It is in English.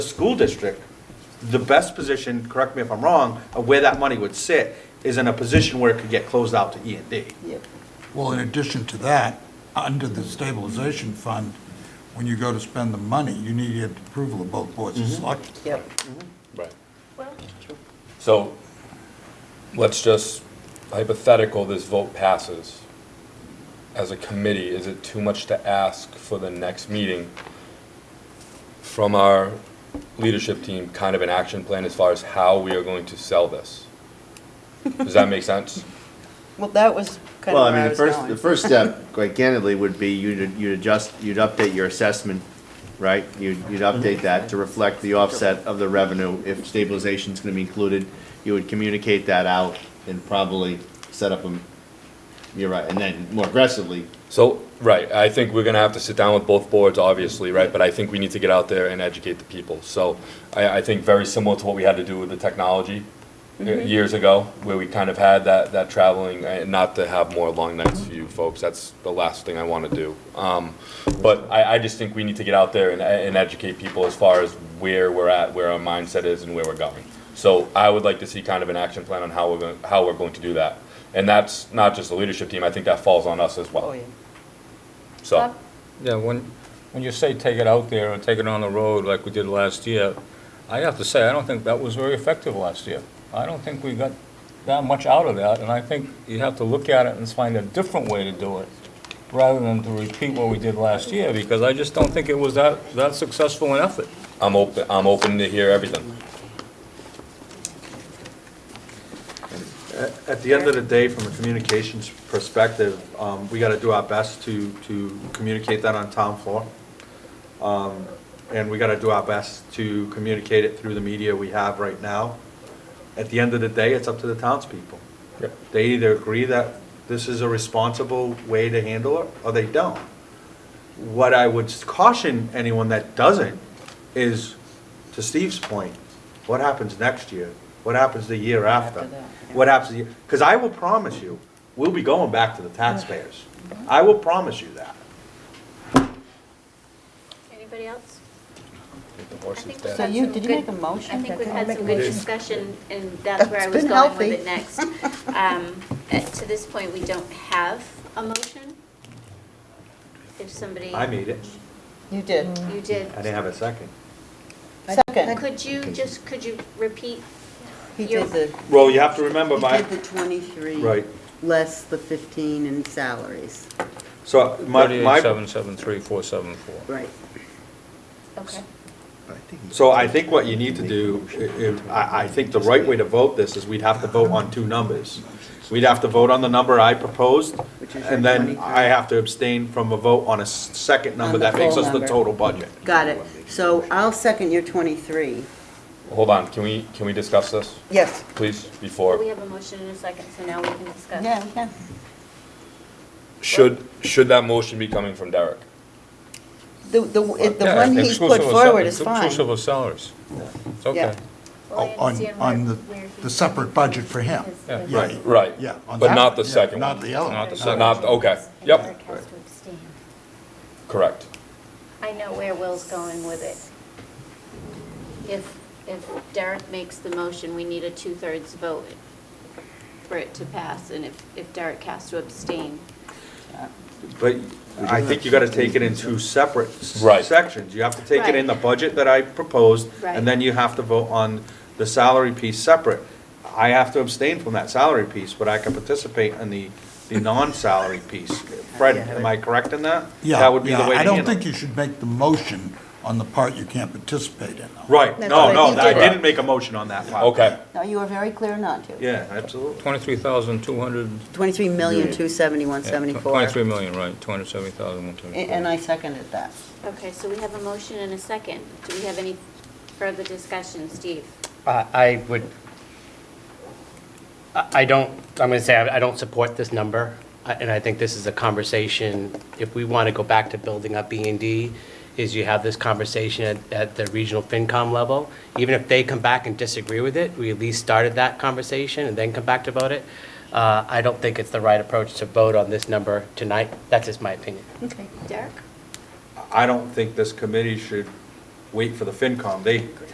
the school district, the best position, correct me if I'm wrong, of where that money would sit, is in a position where it could get closed out to E and D. Yep. Well, in addition to that, under the stabilization fund, when you go to spend the money, you need to get approval of both boards of Mm-hmm. selectmen. Yep. Right. Well, So let's just hypothetical, this vote passes. As a committee, is it too much to ask for the next meeting from our leadership team, kind of an action plan as far as how we are going to sell this? Does that make sense? well, that was kind Well, of I where I was mean, the first, the going. first step, quite candidly, would be you'd, you'd adjust, you'd update your assessment, right? You'd, you'd Mm-hmm. update that to reflect the offset of the revenue, if stabilization's gonna be included. You would communicate that out and probably set up a, you're right, and then more aggressively, So, right, I think we're gonna have to sit down with both boards, obviously, right? But I think we need to get out there and educate the people. So I, I think very similar to what we had to do with the technology uh, Mm-hmm. years ago, where we kind of had that, that traveling, uh, not to have more long nights for you folks, that's the last thing I wanna do. Um, But I, I just think we need to get out there and, and educate people as far as where we're at, where our mindset is and where we're going. So I would like to see kind of an action plan on how we're going, how we're going to do that. And that's not just the leadership team, I think that falls on us as well. Oh, yeah. So, Yeah, when, when you say take it out there or take it on the road like we did last year, I have to say, I don't think that was very effective last year. I don't think we got that much out of that, and I think you have to look at it and find a different way to do it, rather than to repeat what we did last year, because I just don't think it was that, that successful an effort. I'm open, I'm open to hear everything. At the end of the day, from a communications perspective, um, we gotta do our best to, to communicate that on town floor. Um, and we gotta do our best to communicate it through the media we have right now. At the end of the day, it's up to the townspeople. Yep. They either agree that this is a responsible way to handle it, or they don't. What I would caution anyone that doesn't is, to Steve's point, what happens next year? What happens the year after? After that, yeah. What happens, because I will promise you, we'll be going back to the taxpayers. I will promise you that. Anybody else? The I horse is think we've dead. So had you- some did you good- make a motion? I think Did we've I had make some a good motion? discussion, and that's where I That's was been going with healthy. it next. Um, At To this point, we don't have a motion. If somebody, I made it. You did. Mm. you did, I didn't have a second. Second, could you just, could you repeat? He your- did the, Well, you have to remember, he did my, the 23. Right. Less the 15 in salaries, so my, Thirty-eight, my, seven, seven, three, four, seven, four. right. Okay. I think so I think what you need to do, i- if- I, I think the right way to vote this is we'd have to vote on two numbers. We'd have to vote on the number I proposed, Which is your and then 23. I have to abstain from a vote on a s- second number On the that makes full us the number. total budget. Got it. So I'll second your 23. Hold on, can we, can we discuss this, Yes. please, We before? have a motion in a second, so now we can discuss. yeah, yeah. Should, should that motion be coming from Derek? The, the, it- the Yeah, one he's put exclusive of sal- forward is fine. Exclusive of salaries. It's okay. Well, I Oh, On, understand on where- the, where he- the separate budget for him. Yeah. Yeah, Right. Right. Yeah. on But that not one, the yeah, second Not one. the other. Not the one. second. Not, okay, And yep, Eric has to abstain. correct. I know where Will's going with it. If, if Derek makes the motion, we need a two-thirds vote for it to pass, and if, if Derek has to abstain. But I think you gotta take it in two separate s- Right. sections. You have to take it in the Right. budget that I proposed, Right. and then you have to vote on the salary piece separate. I have to abstain from that salary piece, but I can participate in the, the non-salary piece. Fred, am I correct in that? Yeah, That would be the yeah, way to I handle it. don't think you should make the motion on the part you can't participate in. though. Right, That's no, what no, he I did. didn't make a motion on that part. Okay, No, you were very clear not to. Yeah, absolutely. Twenty-three thousand, two hundred. 23 23,271,74. million, right, 270,174. A- And I seconded that. Okay, so we have a motion and a second. Do we have any further discussion, Steve? I I would, I I don't, I'm going to say I I don't support this number, I- and I think this is a conversation, if we want to go back to building up B and D, is you have this conversation at- at the regional FinCom level. Even if they come back and disagree with it, we at least started that conversation and then come back to vote it. Uh, I don't think it's the right approach to vote on this number tonight. That's just my opinion. Okay. Derek? I don't think this committee should wait for the FinCom. They